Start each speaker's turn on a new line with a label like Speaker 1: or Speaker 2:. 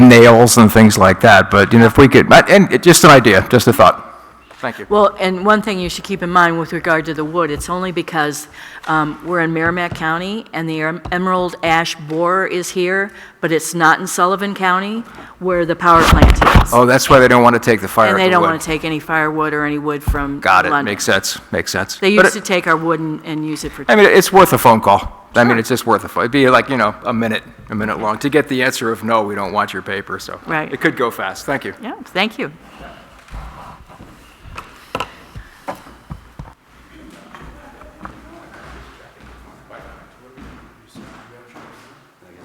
Speaker 1: nails and things like that, but, you know, if we could, but- and it- just an idea, just a thought. Thank you.
Speaker 2: Well, and one thing you should keep in mind with regard to the wood, it's only because um, we're in Merrimack County, and the em- emerald ash borer is here, but it's not in Sullivan County where the power plant is.
Speaker 1: Oh, that's why they don't want to take the fire at
Speaker 2: And they
Speaker 1: the
Speaker 2: don't
Speaker 1: wood.
Speaker 2: want to take any firewood or any wood from London.
Speaker 1: Got it, makes sense, makes sense.
Speaker 2: They
Speaker 1: But
Speaker 2: used
Speaker 1: it-
Speaker 2: to take our wood and and use it for...
Speaker 1: I mean, it's worth a phone call. I mean, it's just worth a phone, it'd be like, you know, a minute, a minute long, to get the answer of, no, we don't want your paper, so.
Speaker 2: Right.
Speaker 1: It could go fast, thank you.
Speaker 2: Yeah, thank you.